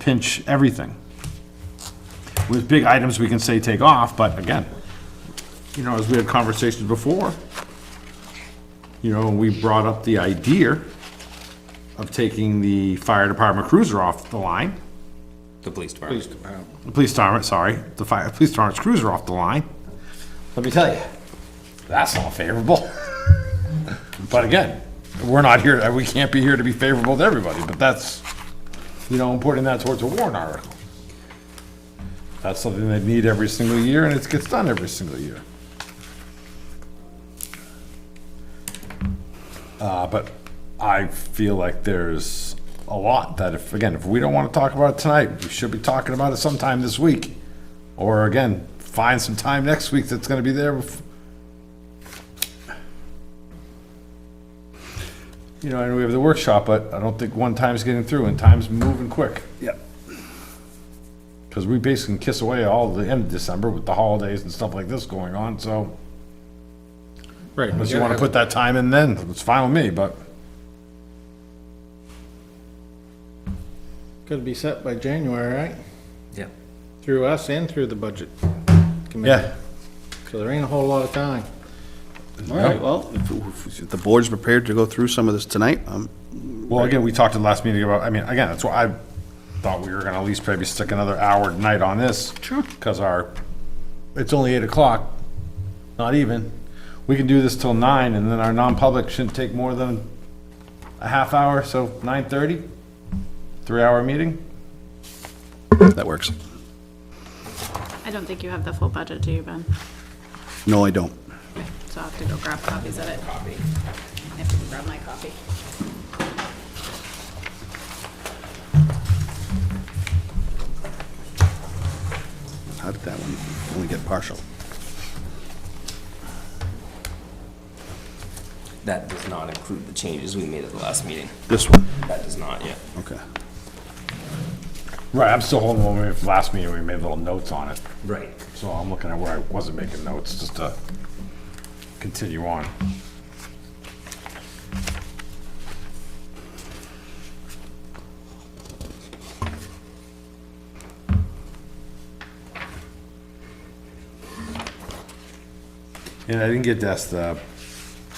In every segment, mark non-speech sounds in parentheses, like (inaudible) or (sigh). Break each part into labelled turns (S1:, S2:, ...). S1: pinch everything. With big items, we can say take off, but again, you know, as we had conversations before, you know, we brought up the idea of taking the fire department cruiser off the line.
S2: The police department.
S1: The police department, sorry, the fire, police department's cruiser off the line. Let me tell you, that's not favorable. (laughs) But again, we're not here, we can't be here to be favorable to everybody, but that's, you know, I'm putting that towards a warrant article. That's something they need every single year, and it gets done every single year. Uh, but I feel like there's a lot that if, again, if we don't want to talk about it tonight, we should be talking about it sometime this week. Or again, find some time next week that's gonna be there. bef- You know, and we have the workshop, but I don't think one time's getting through and time's moving quick. Yep. Cause we basically kiss away all the end of December with the holidays and stuff like this going on, so
S3: Right.
S1: unless you wanna put that time in then, it's fine with me, but.
S3: Could be set by January, right?
S2: Yeah.
S3: Through us and through the budget. committee.
S1: Yeah.
S3: So there ain't a whole lot of time.
S4: All right, well, if if the board's prepared to go through some of this tonight, um,
S1: Well, again, we talked at the last meeting about, I mean, again, that's why I thought we were gonna at least maybe stick another hour tonight on this. Sure. Cause our, it's only eight o'clock, not even. We can do this till nine and then our non-public shouldn't take more than a half hour, so nine thirty? Three-hour meeting?
S4: that works.
S5: I don't think you have the full budget, do you, Ben?
S4: No, I don't.
S5: Okay, So I'll have to go grab copies of it. Copy. I have to go grab my copy.
S4: How did that one only get partial?
S2: That does not include the changes we made at the last meeting.
S4: This one,
S2: That does not, yeah.
S4: okay.
S1: Right, I'm still holding on, we, last meeting, we made little notes on it.
S2: Right.
S1: So I'm looking at where I wasn't making notes, just to continue on. And I didn't get to ask the,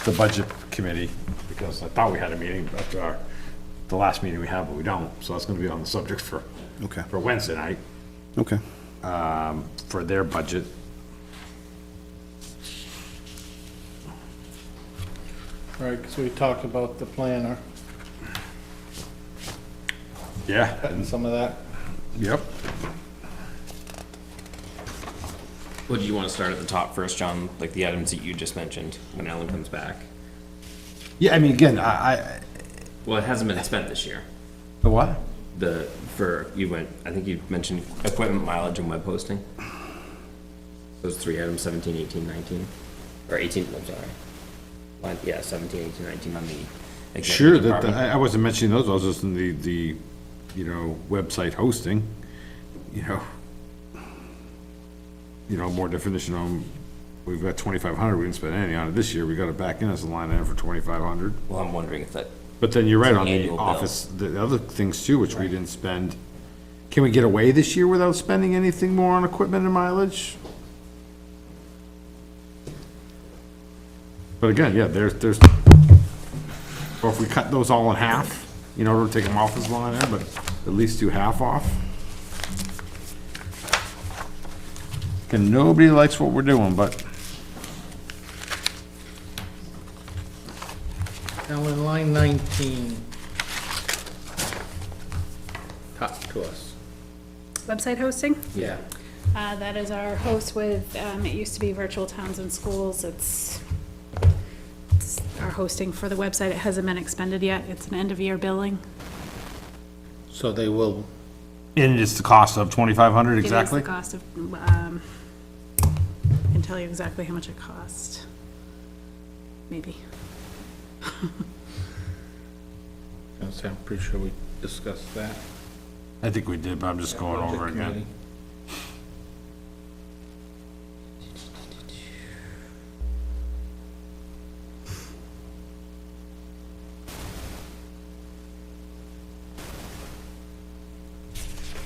S1: the budget committee, because I thought we had a meeting after our, the last meeting we have, but we don't, so that's gonna be on the subject for,
S4: Okay.
S1: for Wednesday night
S4: Okay.
S1: for their budget.
S3: Right, because we talked about the planner
S1: Yeah.
S3: and some of that.
S1: Yep.
S2: Well, do you want to start at the top first, John? Like the items that you just mentioned when Ellen comes back?
S1: Yeah, I mean, again, I, I,
S2: Well, it hasn't been spent this year.
S1: the what?
S2: The, for, you went, I think you mentioned equipment mileage and web hosting. Those three items, 17, 18, 19, or 18, I'm sorry. Line- Yeah, 17, 18, 19 on the. executive
S1: Sure, that, that-
S2: department.
S1: I, I wasn't mentioning those, I was just in the, the, you know, website hosting, you know. You know, more definition on, we've got twenty-five hundred, we didn't spend any on it this year, we got it back in as a line item for twenty-five hundred.
S2: Well, I'm wondering if that,
S1: But then you're right on the
S2: Annual bill.
S1: office, the other things too, which we didn't spend. Can we get away this year without spending anything more on equipment and mileage? But again, yeah, there's, there's, or if we cut those all in half, you know, we'll take them off as long there, but at least do half off. And nobody likes what we're doing, but
S3: Now in line 19. Talk to us.
S5: Website hosting?
S3: Yeah.
S5: Uh, that is our host with, um, it used to be Virtual Towns and Schools. It's, it's our hosting for the website. It hasn't been expended yet. It's an end-of-year billing.
S3: So they will,
S1: and it's the cost of twenty-five hundred
S5: It
S1: exactly?
S5: is the cost of, um, I can tell you exactly how much it cost. Maybe.
S3: I'm pretty sure we discussed that.
S1: I think we did, but I'm just going over it again.
S3: Committee.